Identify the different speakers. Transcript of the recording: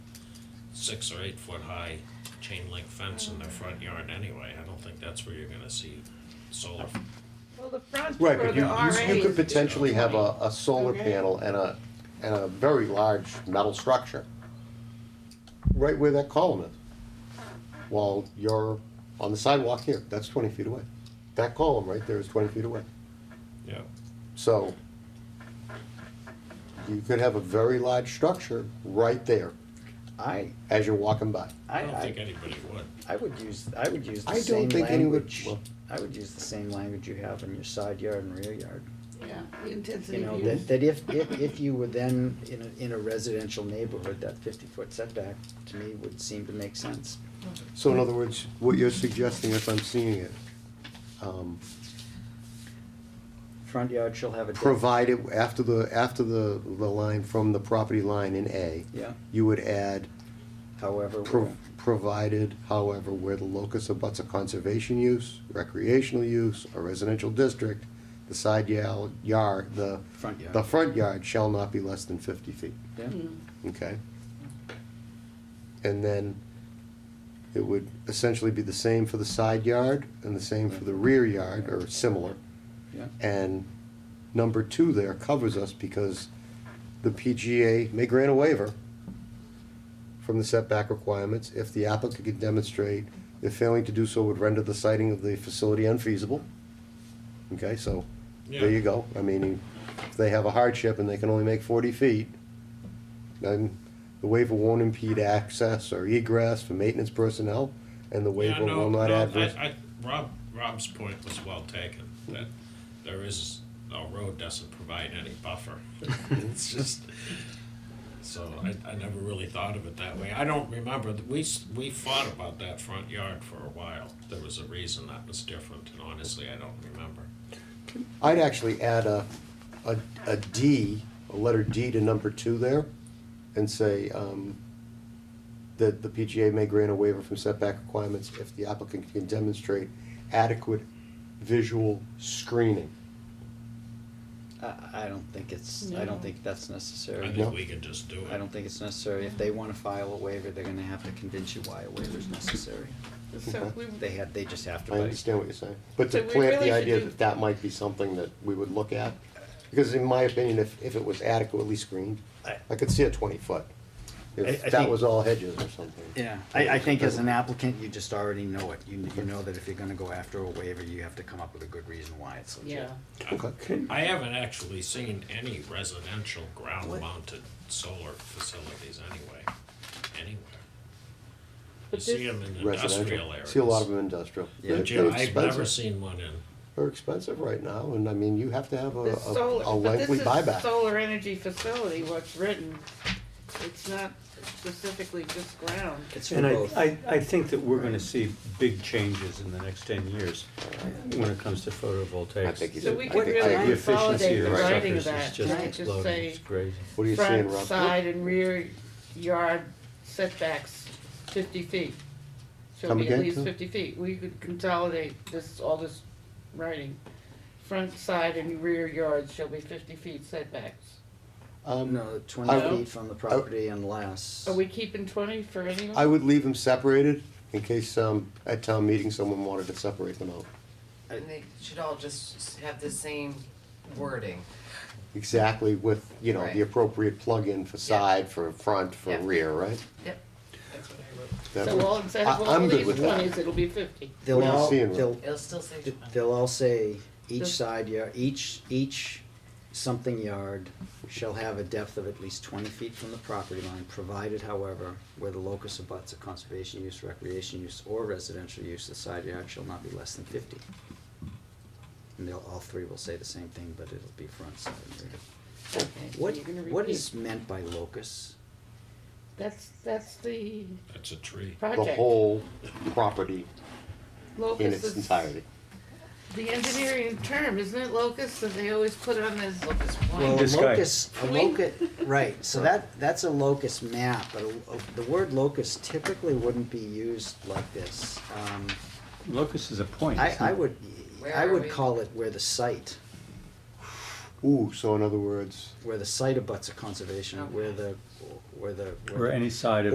Speaker 1: six or eight foot high chain link fence in their front yard anyway. I don't think that's where you're gonna see solar.
Speaker 2: Well, the fronts for
Speaker 3: Right,
Speaker 2: the
Speaker 3: but you, you, you could
Speaker 2: RAs,
Speaker 3: potentially have a, a solar
Speaker 2: Okay.
Speaker 3: panel and a, and a very large metal structure. Right where that column is. While you're on the sidewalk here, that's twenty feet away. That column right there is twenty feet away.
Speaker 1: Yeah.
Speaker 3: So you could have a very large structure right there
Speaker 4: I,
Speaker 3: as you're walking by.
Speaker 1: I
Speaker 4: I,
Speaker 1: don't think
Speaker 4: I,
Speaker 1: anybody would.
Speaker 4: I would use, I would use
Speaker 3: I
Speaker 4: the
Speaker 3: don't
Speaker 4: same
Speaker 3: think any would-
Speaker 4: language,
Speaker 3: well-
Speaker 4: I would use the same language you have in your side yard and rear yard.
Speaker 2: yeah, the
Speaker 4: You
Speaker 2: intensity
Speaker 4: know,
Speaker 2: of
Speaker 4: that,
Speaker 2: use.
Speaker 4: that if, if, if you were then in a, in a residential neighborhood, that fifty-foot setback to me would seem to make sense.
Speaker 3: So in other words, what you're suggesting, if I'm seeing it, um,
Speaker 4: Front yard shall have a. deck-
Speaker 3: provided, after the, after the, the line from the property line in A,
Speaker 4: Yeah,
Speaker 3: you would add,
Speaker 4: however,
Speaker 3: pro- provided, however, where the locus abuts a conservation use, recreational use, or residential district, the side yal- yard, the,
Speaker 4: front yard.
Speaker 3: the front yard shall not be less than fifty feet,
Speaker 4: Yeah.
Speaker 2: Hmm.
Speaker 3: okay? And then it would essentially be the same for the side yard and the same for the rear yard, or similar.
Speaker 4: Yeah.
Speaker 3: And number two there covers us because the PGA may grant a waiver from the setback requirements if the applicant can demonstrate that failing to do so would render the siting of the facility unfeasible. Okay, so there you
Speaker 1: Yeah.
Speaker 3: go. I mean, if they have a hardship and they can only make forty feet, then the waiver won't impede access or egress for maintenance personnel, and the
Speaker 1: Yeah,
Speaker 3: waiver
Speaker 1: no,
Speaker 3: will
Speaker 1: no,
Speaker 3: not
Speaker 1: I-
Speaker 3: adverse.
Speaker 1: I, Rob, Rob's point was well taken, that there is, a road doesn't provide any buffer. It's just, so I, I never really thought of it that way. I don't remember, that we, s- we fought about that front yard for a while. There was a reason that was different, and honestly, I don't remember.
Speaker 3: I'd actually add a, a, a D, a letter D to number two there, and say, um, that the PGA may grant a waiver from setback requirements if the applicant can demonstrate adequate visual screening.
Speaker 4: I, I don't think it's, I
Speaker 2: No.
Speaker 4: don't think that's necessary.
Speaker 1: I
Speaker 3: Yeah.
Speaker 1: think we could just do
Speaker 4: I
Speaker 1: it.
Speaker 4: don't think it's necessary. If they wanna file a waiver, they're gonna have to convince you why a waiver is necessary.
Speaker 2: So if we,
Speaker 4: They had, they just have to.
Speaker 3: I
Speaker 4: by-
Speaker 3: understand what you're saying, but to
Speaker 2: So we
Speaker 3: plant
Speaker 2: really
Speaker 3: the
Speaker 2: should
Speaker 3: idea
Speaker 2: do-
Speaker 3: that that might be something that we would look at, because in my opinion, if, if it was adequately screened,
Speaker 4: I-
Speaker 3: I could see a twenty foot.
Speaker 4: I- I
Speaker 3: If that
Speaker 4: think-
Speaker 3: was all hedges or something.
Speaker 4: Yeah, I, I think as an applicant, you just already know it. You, you know that if you're gonna go after a waiver, you have to come up with a good reason why it's legit.
Speaker 2: yeah,
Speaker 3: Okay.
Speaker 1: I haven't actually seen any residential ground-mounted solar facilities anyway, anywhere. You
Speaker 2: But
Speaker 1: see
Speaker 2: this-
Speaker 1: them in industrial
Speaker 3: Residential,
Speaker 1: areas.
Speaker 3: see a lot of them industrial.
Speaker 4: Yeah.
Speaker 1: But
Speaker 3: They're- They're
Speaker 1: Jim, I've never
Speaker 3: expensive,
Speaker 1: seen one in.
Speaker 3: they're expensive right now, and I mean, you have to have a,
Speaker 2: the solar,
Speaker 3: a a
Speaker 2: but this
Speaker 3: lengthy
Speaker 2: is
Speaker 3: buyback.
Speaker 2: solar energy facility, what's written, it's not specifically just ground.
Speaker 4: It's for
Speaker 5: And I,
Speaker 4: both.
Speaker 5: I, I think that we're gonna see big changes in the next ten years when it comes to photovoltaics.
Speaker 3: I think you
Speaker 2: So
Speaker 3: did.
Speaker 2: we
Speaker 3: I
Speaker 2: could
Speaker 3: think-
Speaker 2: really
Speaker 3: I-
Speaker 5: The
Speaker 3: the
Speaker 5: efficiency
Speaker 2: consolidate
Speaker 5: of
Speaker 2: the
Speaker 3: Right.
Speaker 2: writing of
Speaker 5: instructors
Speaker 2: that,
Speaker 5: is just
Speaker 2: right, just
Speaker 5: exploding,
Speaker 2: say
Speaker 5: it's crazy.
Speaker 3: What are you saying,
Speaker 2: front,
Speaker 3: Rob?
Speaker 2: side, and rear yard setbacks fifty feet. Shall
Speaker 3: Come
Speaker 2: be at
Speaker 3: again,
Speaker 2: least
Speaker 3: Sue?
Speaker 2: fifty feet, we could consolidate this, all this writing. Front, side, and rear yards shall be fifty feet setbacks.
Speaker 3: Um,
Speaker 4: No, twenty
Speaker 3: I-
Speaker 4: feet from the property unless.
Speaker 2: Are we keeping twenty for anyone?
Speaker 3: I would leave them separated in case, um, at town meeting, someone wanted to separate them out.
Speaker 6: And they should all just have the same wording.
Speaker 3: Exactly with, you know,
Speaker 6: Right.
Speaker 3: the appropriate plug-in for side, for front, for
Speaker 6: Yeah.
Speaker 3: rear, right?
Speaker 6: Yep. That's what I wrote.
Speaker 3: That
Speaker 2: So
Speaker 3: would-
Speaker 2: all instead
Speaker 3: I-
Speaker 2: of all
Speaker 3: I'm good
Speaker 2: these
Speaker 3: with that.
Speaker 2: twenties, it'll be fifty.
Speaker 4: They'll
Speaker 3: What are you
Speaker 4: all,
Speaker 3: seeing, Rob?
Speaker 4: they'll,
Speaker 6: It'll still say.
Speaker 4: they'll all say each
Speaker 2: Just-
Speaker 4: side yard, each, each something yard shall have a depth of at least twenty feet from the property line, provided however, where the locus abuts a conservation use, recreation use, or residential use, the side yard shall not be less than fifty. And they'll, all three will say the same thing, but it'll be front side and rear.
Speaker 2: Okay, so
Speaker 4: What,
Speaker 2: you're gonna
Speaker 4: what
Speaker 2: repeat.
Speaker 4: is meant by locus?
Speaker 2: That's, that's the
Speaker 1: That's a tree.
Speaker 3: The
Speaker 2: project.
Speaker 3: whole property in
Speaker 2: Locus
Speaker 3: its
Speaker 2: is-
Speaker 3: entirety.
Speaker 2: The engineering term, isn't it locus that they always put on as locus
Speaker 4: Well,
Speaker 2: point?
Speaker 4: a
Speaker 5: This guy.
Speaker 4: locus, a
Speaker 2: Wink.
Speaker 4: locus, right, so that, that's a locus map, but a- a- the word locus typically wouldn't be used like this. Um,
Speaker 5: Locus is a point.
Speaker 4: I,
Speaker 5: isn't
Speaker 4: I
Speaker 5: it?
Speaker 4: would,
Speaker 6: Where
Speaker 4: I
Speaker 6: are
Speaker 4: would
Speaker 6: we?
Speaker 4: call it where the site,
Speaker 3: Ooh, so in other words,
Speaker 4: where the site abuts a conservation, where the, where the. where
Speaker 5: Or
Speaker 4: the-
Speaker 5: any side of.